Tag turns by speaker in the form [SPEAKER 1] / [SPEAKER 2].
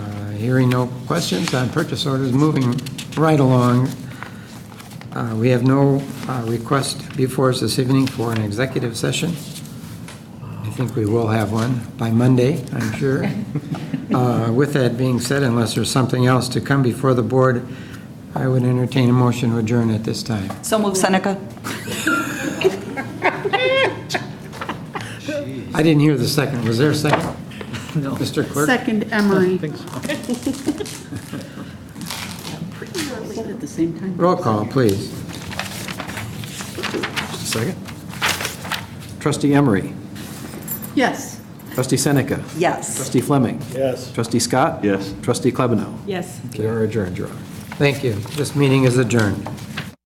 [SPEAKER 1] Uh, Hearing no questions on purchase orders, moving right along. Uh, We have no uh, request before us this evening for an executive session. I think we will have one by Monday, I'm sure. Uh, With that being said, unless there's something else to come before the board, I would entertain a motion to adjourn at this time.
[SPEAKER 2] So move Seneca.
[SPEAKER 1] I didn't hear the second. Was there a second? No. Mr. Clerk?
[SPEAKER 3] Second, Emery. Said at the same time.
[SPEAKER 1] Roll call, please.
[SPEAKER 4] Second. Trustee Emery.
[SPEAKER 3] Yes.
[SPEAKER 4] Trustee Seneca.
[SPEAKER 2] Yes.
[SPEAKER 4] Trustee Fleming.
[SPEAKER 5] Yes.
[SPEAKER 4] Trustee Scott.
[SPEAKER 5] Yes.
[SPEAKER 4] Trustee Klebanow.
[SPEAKER 3] Yes.
[SPEAKER 4] They are adjourned, Your Honor.
[SPEAKER 1] Thank you. This meeting is adjourned.